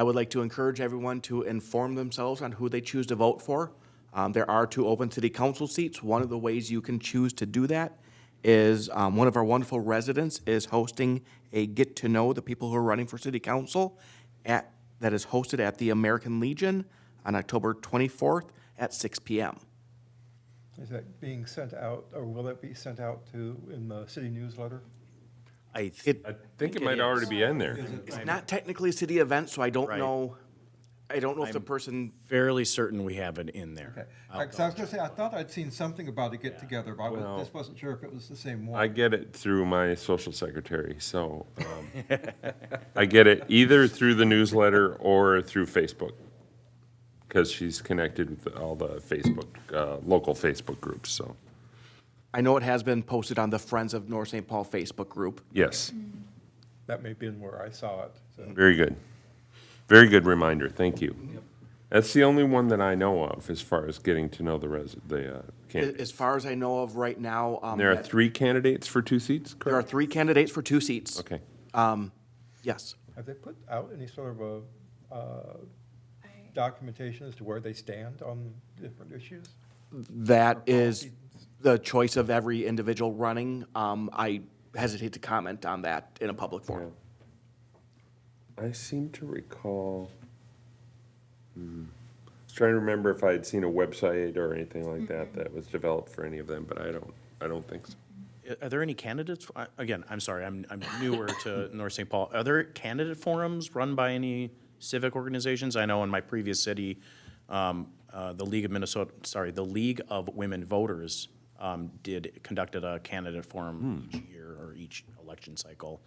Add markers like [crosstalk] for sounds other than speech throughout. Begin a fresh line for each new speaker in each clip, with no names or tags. I would like to encourage everyone to inform themselves on who they choose to vote for. Um, There are two open city council seats. One of the ways you can choose to do that is, um, one of our wonderful residents is hosting a get-to-know the people who are running for city council at, that is hosted at the American Legion on October 24th at 6 PM.
Is that being sent out, or will that be sent out to, in the city newsletter?
I think
I think it might already be in there.
It's not technically a city event, so I don't know, I don't know if the person,
fairly certain we have it in there.
Okay, because I was gonna say, I thought I'd seen something about a get-together, but I was- just wasn't sure if it was the same
I
one.
get it through my social secretary, so
[laughs]
um, I get it either through the newsletter or through Facebook. Because she's connected with all the Facebook, uh, local Facebook groups, so,
I know it has been posted on the Friends of North St. Paul Facebook group.
yes,
That may have been where I saw it, so.
very good. Very good reminder, thank you. That's the only one that I know of as far as getting to know the resi, the uh,
A-
candidates.
As far as I know of right now, um,
There are
that-
three candidates for two seats,
there are
correct?
three candidates for two seats.
Okay.
Yes.
Have they put out any sort of a uh, documentation as to where they stand on different issues?
That is the choice of every individual running. Um, I hesitate to comment on that in a public forum.
I seem to recall. Hmm. I was trying to remember if I had seen a website or anything like that that was developed for any of them, but I don't. I don't think so.
Are there any candidates, I- again, I'm sorry, I'm, I'm newer [laughs] to North St. Paul. Are there candidate forums run by any civic organizations? I know in my previous city, um, uh, the League of Minnesota, sorry, the League of Women Voters um, did, conducted a candidate forum each year or each election cycle.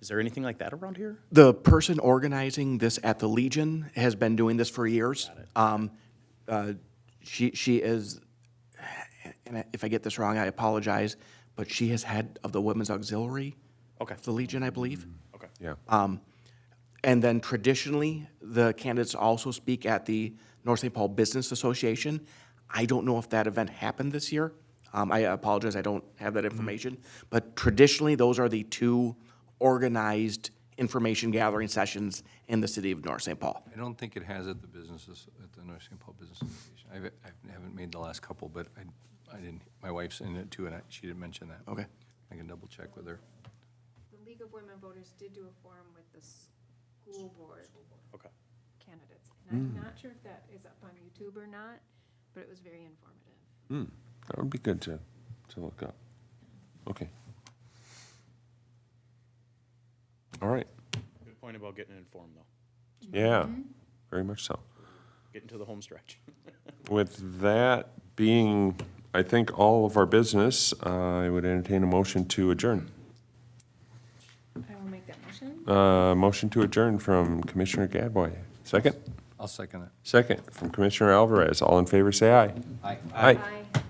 Is there anything like that around here?
The person organizing this at the Legion has been doing this for years. Um, uh, She, she is, and I- if I get this wrong, I apologize, but she is head of the Women's Auxiliary.
Okay.
of The Legion, I believe.
Okay.
Yeah.
And then traditionally, the candidates also speak at the North St. Paul Business Association. I don't know if that event happened this year. Um, I apologize, I don't have that information. But traditionally, those are the two organized information gathering sessions in the city of North St. Paul.
I don't think it has at the businesses, at the North St. Paul Business Association. I've- I haven't made the last couple, but I, I didn't, my wife's in it too, and I- she didn't mention that.
Okay.
I can double check with her.
The League of Women Voters did do a forum with the school board
Okay.
candidates. And I'm not sure if that is up on YouTube or not, but it was very informative.
that would be good to to look up. Okay. All right.
Good point about getting informed, though,
Yeah. Very much so.
getting to the home stretch.
With that being, I think all of our business, I would entertain a motion to adjourn.
I will make that motion.
Uh, motion to adjourn from Commissioner Gadboy. Second.
I'll second that.
Second, from Commissioner Alvarez. All in favor, say aye.
Aye.
Aye.
Aye.